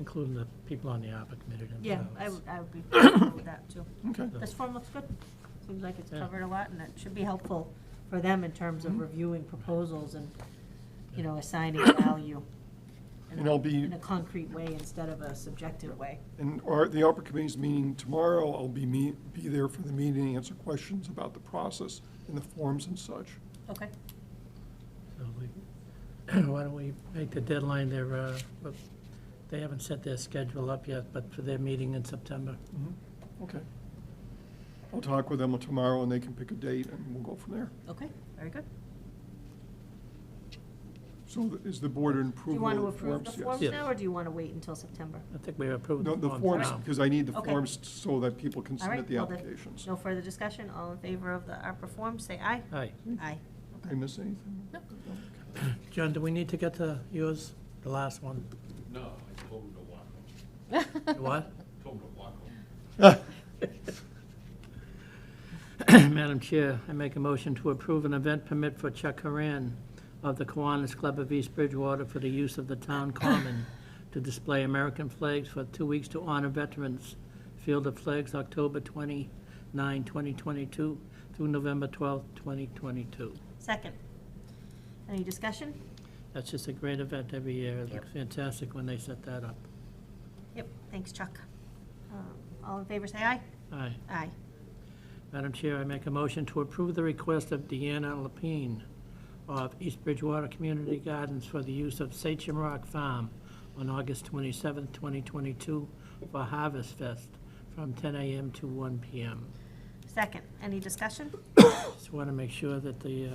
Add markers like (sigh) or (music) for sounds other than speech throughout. including the people on the ARPA committee Yeah, themselves. I would, I would (coughs) be comfortable with that too. Okay. This form looks good. Seems like it's Yeah. covered a lot and it should be helpful for them in terms Mm-hmm. of reviewing proposals and, you know, (coughs) assigning value. in a- And I'll be- In a concrete way instead of a subjective way. And our, the ARPA committee's meeting tomorrow, I'll be me, be there for the meeting, answer questions about the process and the forms and such. Okay. So we- (clears throat) Why don't we make the deadline there, uh, but they haven't set their schedule up yet, but for their meeting in September. Mm-hmm. Okay. I'll talk with them tomorrow, and they can pick a date, and we'll go from there. Okay, very good. So th- is the board in Do you approval want to of the approve forms? the forms Yes. now or do you want to wait until September? I think we approved No, the the forms forms, now. because I need the Okay. forms so that people can All right, submit the well then, applications. No further discussion, all in favor of the ARPA form, say aye. Aye. Aye. Did I miss anything? No. John, do we need to get to yours, the last (laughs) one? No, I told him to walk home. What? Told him to walk home. (laughs) Madam Chair, I make a motion to approve an event permit for Chuck Haran of the Kiwanis Club of East Bridgewater for the use of the town common to display American flags for two weeks to honor veterans. Field of Flags, October 29, 2022 through November 12, 2022. Second. Any discussion? That's just a great event every year. It looks fantastic when they set that up. Yep, thanks Chuck. Um, All in favor, say aye. Aye. Aye. Madam Chair, I make a motion to approve the request of Deanna Lapine of East Bridgewater Community Gardens for the use of Sachem Rock Farm on August 27, 2022 for Harvest Fest from 10 a.m. to 1 p.m. Second, any discussion? Just want to make sure that the uh,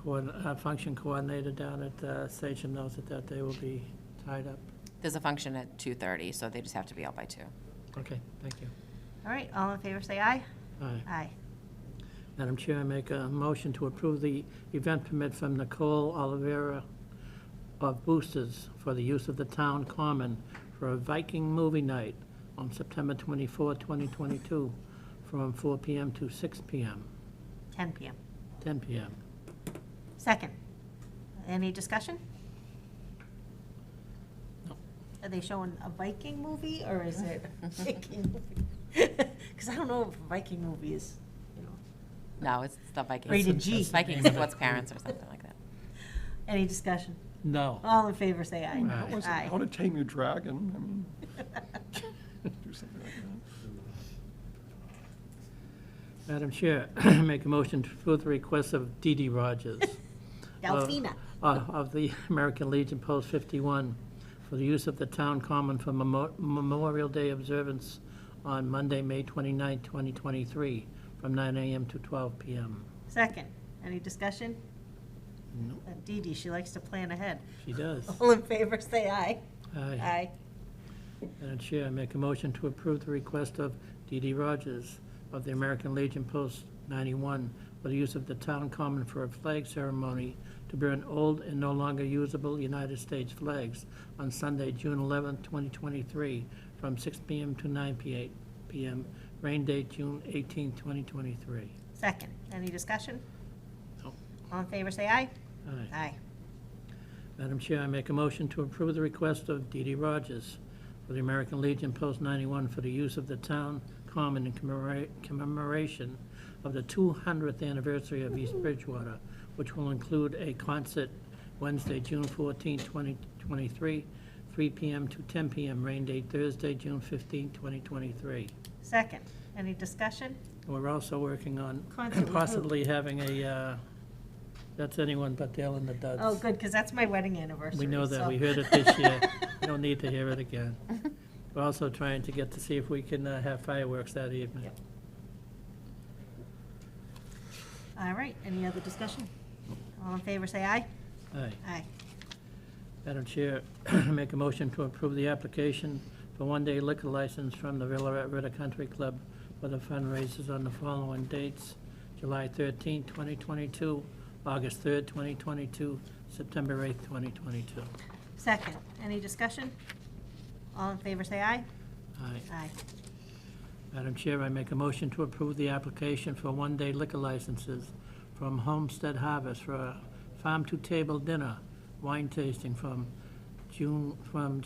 coordin- uh, function coordinator down at uh, Sachem knows that that day will be tied up. There's a function at 2:30, so they just have to be out by two. Okay, thank you. All right, all in favor, say aye. Aye. Aye. Madam Chair, I make a motion to approve the event permit from Nicole Olivera of Boosters for the use of the town common for a Viking movie night on September 24, 2022, from 4 PM to 6 PM, 10 PM. 10 PM. Second, any discussion? No. Are they showing a Viking movie, or is it Viking movie? (laughs) Because I don't know if Viking movie is, you know. No, it's the Vikings. Rated G. It's Vikings and what's parents or something like that. Any discussion? No. All in favor, say I mean, How aye. was it, Aye. (laughs) How to Tame Your Dragon, I mean, do something like that. Madam Chair, (coughs) I make a motion to approve the request of Dee Dee Rogers Delphina, uh, of the (laughs) American Legion Post 51 for the use of the town common for Memo- Memorial Day observance on Monday, May 29, 2023, from 9 a.m. to 12 p.m. second, any discussion? No. That Dee Dee, she likes to plan ahead. She does. (laughs) All in favor, say aye. Aye. Aye. Madam Chair, I make a motion to approve the request of Dee Dee Rogers of the American Legion Post 91 for the use of the town common for a flag ceremony to burn old and no longer usable United States flags on Sunday, June 11, 2023, from 6 p.m. to 9 p.m. p.m. Rain date, June 18, 2023. Second, any discussion? No. All in favor, say aye. Aye. Aye. Madam Chair, I make a motion to approve the request of Dee Dee Rogers for the American Legion Post 91 for the use of the town common in commemora- commemoration of the 200th anniversary of East Bridgewater, which will include a concert Wednesday, June 14, 2023, 3 p.m. to 10 p.m., rain date Thursday, June 15, 2023. Second, any discussion? We're also working on Concert with who? possibly having a, uh, that's anyone but Dale and the Duds. Oh, good, because that's my wedding anniversary. We know that, so- we heard it this (laughs) year, we don't need to hear it again. We're also trying to get to see if we can uh, have fireworks that evening. Yep. All right, any other discussion? All in favor, say aye. Aye. Aye. Madam Chair, (clears throat) make a motion to approve the application for one-day liquor license from the River Ritter Country Club for the fundraisers on the following dates: July 13, 2022, August 3, 2022, September 8, 2022. Second, any discussion? All in favor, say aye. Aye. Aye. Madam Chair, I make a motion to approve the application for one-day liquor licenses from Homestead Harvest for a farm-to-table dinner, wine tasting from June, from